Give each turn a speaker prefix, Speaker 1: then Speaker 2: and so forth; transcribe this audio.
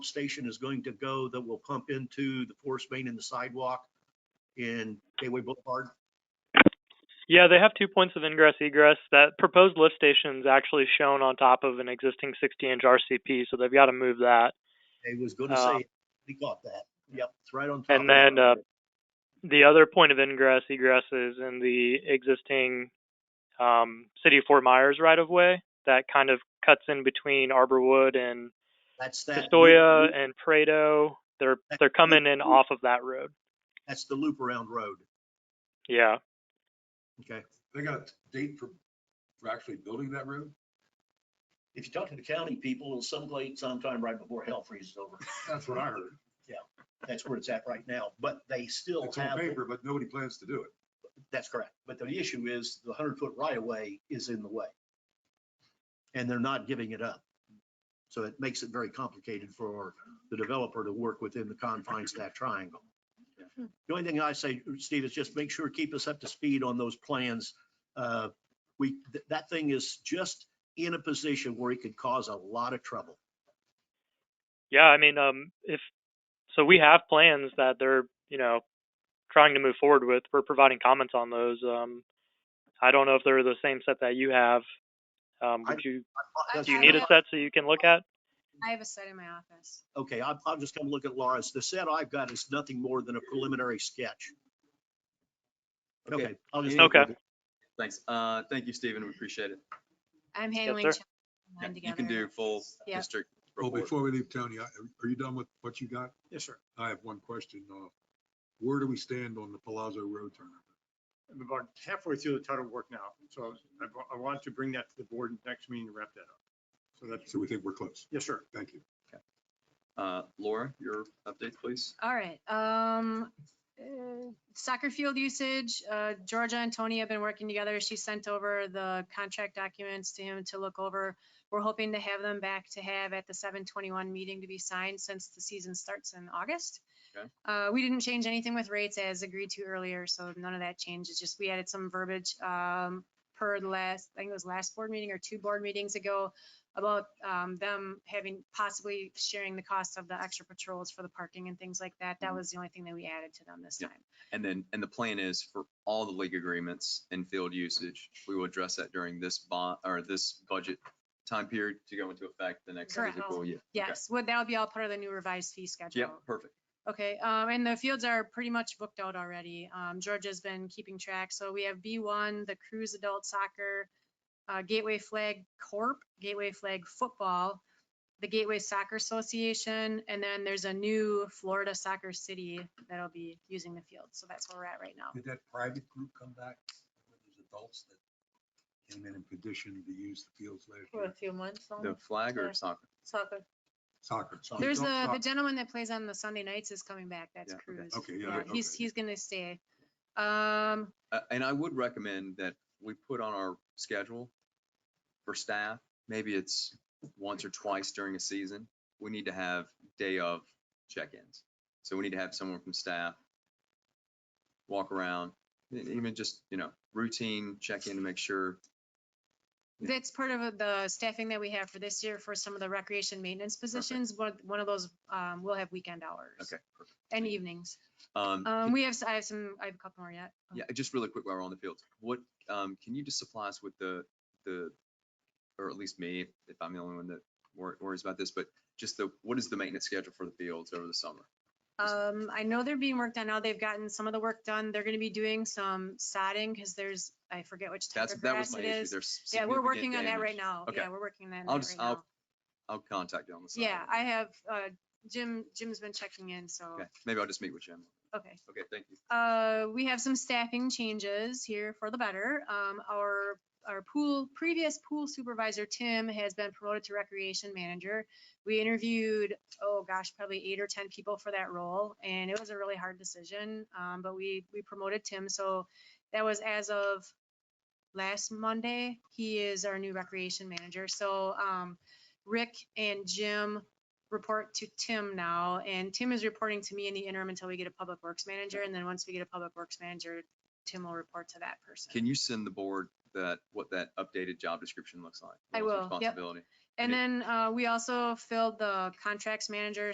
Speaker 1: station is going to go that will pump into the forest main and the sidewalk in Gateway Boulevard?
Speaker 2: Yeah, they have two points of ingress egress. That proposed lift station's actually shown on top of an existing 60-inch RCP, so they've got to move that.
Speaker 1: I was gonna
Speaker 2: Uh,
Speaker 1: say, we got that. Yep, it's right on top.
Speaker 2: And
Speaker 1: of
Speaker 2: then
Speaker 1: that.
Speaker 2: uh, the other point of ingress egress is in the existing um, City of Fort Myers right-of-way that kind of cuts in between Arborwood and
Speaker 1: That's that.
Speaker 2: Pistoia
Speaker 1: loop-
Speaker 2: and Prado. They're
Speaker 1: That
Speaker 2: they're coming
Speaker 1: loop-
Speaker 2: in off of that road.
Speaker 1: That's the loop around road.
Speaker 2: Yeah.
Speaker 1: Okay.
Speaker 3: They got a date for, for actually building that road?
Speaker 1: If you talk to the county people, it'll someplace sometime right before hell freezes over.
Speaker 3: That's what I heard.
Speaker 1: That's where it's at right now, but they still
Speaker 3: It's on
Speaker 1: have,
Speaker 3: paper, but nobody plans to do it.
Speaker 1: that's correct. But the issue is the hundred foot right of way is in the way. And they're not giving it up. So it makes it very complicated for the developer to work within the confines of that triangle. The only thing I say, Steve, is just make sure, keep us up to speed on those plans. Uh, We, th- that thing is just in a position where it could cause a lot of trouble.
Speaker 2: Yeah, I mean, um, if so, we have plans that they're you know trying to move forward with. We're providing comments on those. Um, I don't know if they're the same set that you have. Um,
Speaker 1: I-
Speaker 2: would you
Speaker 1: That's-
Speaker 2: do you need a
Speaker 4: have-
Speaker 2: set so you can look at?
Speaker 4: I have a set in my office.
Speaker 1: Okay, I'll, I'll just come look at Laura's. The set I've got is nothing more than a preliminary sketch. Okay, I'll just.
Speaker 2: Okay.
Speaker 5: Thanks. Uh, thank you, Stephen. We appreciate it.
Speaker 4: I'm
Speaker 2: Yes,
Speaker 4: handling.
Speaker 2: sir.
Speaker 4: chapter
Speaker 5: Yeah,
Speaker 4: one
Speaker 5: You can
Speaker 4: together.
Speaker 5: do full
Speaker 4: Yeah.
Speaker 5: district
Speaker 3: Well,
Speaker 5: report.
Speaker 3: before we leave, Tony, I- are you done with what you got?
Speaker 1: Yes, sir.
Speaker 3: I have one question. uh, Where do we stand on the Palazzo Road turnover?
Speaker 6: I'm about halfway through the title work now, so I wa- I want to bring that to the board next meeting to wrap that up. So that's,
Speaker 3: So we think we're close.
Speaker 6: yes, sir.
Speaker 3: Thank you.
Speaker 5: Uh, Laura, your updates, please.
Speaker 4: All right, um, uh, soccer field usage, uh, Georgia and Tony have been working together. She sent over the contract documents to him to look over. We're hoping to have them back to have at the seven twenty-one meeting to be signed since the season starts in August.
Speaker 5: Okay.
Speaker 4: Uh, we didn't change anything with rates as agreed to earlier, so none of that changes, just we added some verbiage, um, per the last, I think it was last board meeting or two board meetings ago about um, them having possibly sharing the cost of the extra patrols for the parking and things like that.
Speaker 5: Mm-hmm.
Speaker 4: That was the only thing that we added to them this
Speaker 5: Yeah.
Speaker 4: time.
Speaker 5: And then, and the plan is for all the league agreements and field usage, we will address that during this bond, or this budget time period to go into effect the next
Speaker 4: Correct.
Speaker 5: fiscal year. Okay.
Speaker 4: Yes, would, that'll be all part of the new revised fee schedule.
Speaker 5: Yep, perfect.
Speaker 4: Okay, um, and the fields are pretty much booked out already. Um, Georgia's been keeping track, so we have B one, the Cruise Adult Soccer, uh, Gateway Flag Corp, Gateway Flag Football, the Gateway Soccer Association, and then there's a new Florida Soccer City that'll be using the field. So that's where we're at right now.
Speaker 3: Did that private group come back? Those adults that came in and petitioned to use the fields last
Speaker 7: For a few months,
Speaker 5: The
Speaker 7: only
Speaker 5: flag
Speaker 7: Yeah.
Speaker 5: or soccer?
Speaker 7: soccer.
Speaker 3: Soccer.
Speaker 1: Soccer.
Speaker 4: There's
Speaker 3: Adult
Speaker 4: the, the
Speaker 3: soccer.
Speaker 4: gentleman that plays on the Sunday nights is coming back. That's
Speaker 5: Oh, Yeah, okay.
Speaker 4: Cruz.
Speaker 3: Okay, yeah, okay.
Speaker 4: He's, he's gonna stay. Um,
Speaker 5: Uh, and I would recommend that we put on our schedule for staff, maybe it's once or twice during a season, we need to have day of check-ins. So we need to have someone from staff walk around, e- even just, you know, routine check-in to make sure. Yeah.
Speaker 4: that's part of the staffing that we have for this year for some of the recreation maintenance positions. One, one of those, um, will have weekend hours.
Speaker 5: Okay. perfect.
Speaker 4: And evenings. Um,
Speaker 5: Um, can-
Speaker 4: we have, s- I have some, I have a couple more yet.
Speaker 5: yeah, just really quick while we're on the field, what, um, can you just supply us with the, the, or at least me, if I'm the only one that wor- worries about this, but just the, what is the maintenance schedule for the fields over the summer?
Speaker 4: Um, I know they're being worked on now. They've gotten some of the work done. They're gonna be doing some sodding because there's, I forget which type
Speaker 5: That's,
Speaker 4: of
Speaker 5: that was
Speaker 4: grass
Speaker 5: my
Speaker 4: it
Speaker 5: issue.
Speaker 4: is.
Speaker 5: There's
Speaker 4: Yeah, we're
Speaker 5: significant
Speaker 4: working on that right
Speaker 5: damage.
Speaker 4: now.
Speaker 5: Okay.
Speaker 4: Yeah, we're working on that
Speaker 5: I'll
Speaker 4: right
Speaker 5: just- I'll-
Speaker 4: now.
Speaker 5: I'll contact you on the side.
Speaker 4: Yeah, I have, uh, Jim, Jim's been checking in, so,
Speaker 5: Okay, maybe I'll just meet with Jim.
Speaker 4: okay.
Speaker 5: Okay, thank you.
Speaker 4: Uh, we have some staffing changes here for the better. Um, our, our pool, previous pool supervisor, Tim, has been promoted to recreation manager. We interviewed, oh gosh, probably eight or 10 people for that role, and it was a really hard decision. Um, but we, we promoted Tim, so that was as of last Monday. He is our new recreation manager. So, um, Rick and Jim report to Tim now, and Tim is reporting to me in the interim until we get a public works manager, and then once we get a public works manager, Tim will report to that person.
Speaker 5: Can you send the board that, what that updated job description looks like?
Speaker 4: I
Speaker 5: Roles and
Speaker 4: will, yep.
Speaker 5: Responsibility.
Speaker 4: And then, uh, we also filled the contracts manager